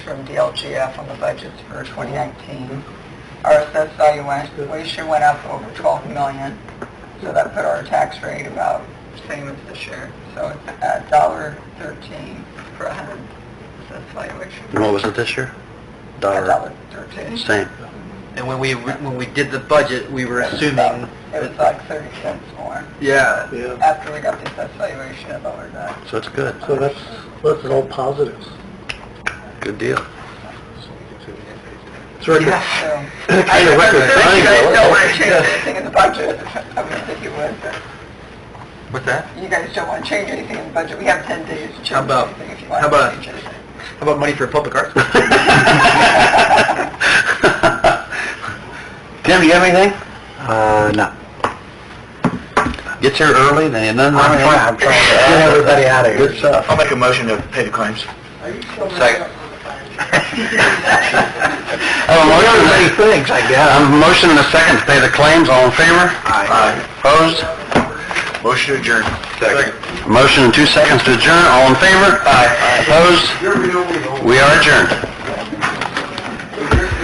from DLGF on the budgets for 2019. Our assessed valuation went up over 12 million, so that put our tax rate about same as this year. So it's at dollar 13 per 100 assessed valuation. And what was it this year? A Dollar, dollar 13. same. And when we, when we did the budget, we were assuming, It was like 30 cents more. yeah, Yeah, After we got the assessed valuation, it lowered that. So it's good. so that's, that's all positives. Good deal. It's record, So- Kind of You record guys don't want to change anything time, in the budget. I mean, if you would, but what's that? you guys don't want to change anything in the budget. We have 10 days to change How about- anything if you want how to about- change anything. How about money for public arts? Tim, you have anything? Uh, no. Get here early, then none. I'm trying- I'm trying to- Get everybody out of here. Good stuff. I'll make a motion to pay the claims. Are you still Second. I have a motion and a second. I have a motion and a second to pay the claims, all in favor? Aye. Opposed? Motion adjourned. Second. Motion and two seconds to adjourn, all in favor? Aye. Opposed? We are adjourned.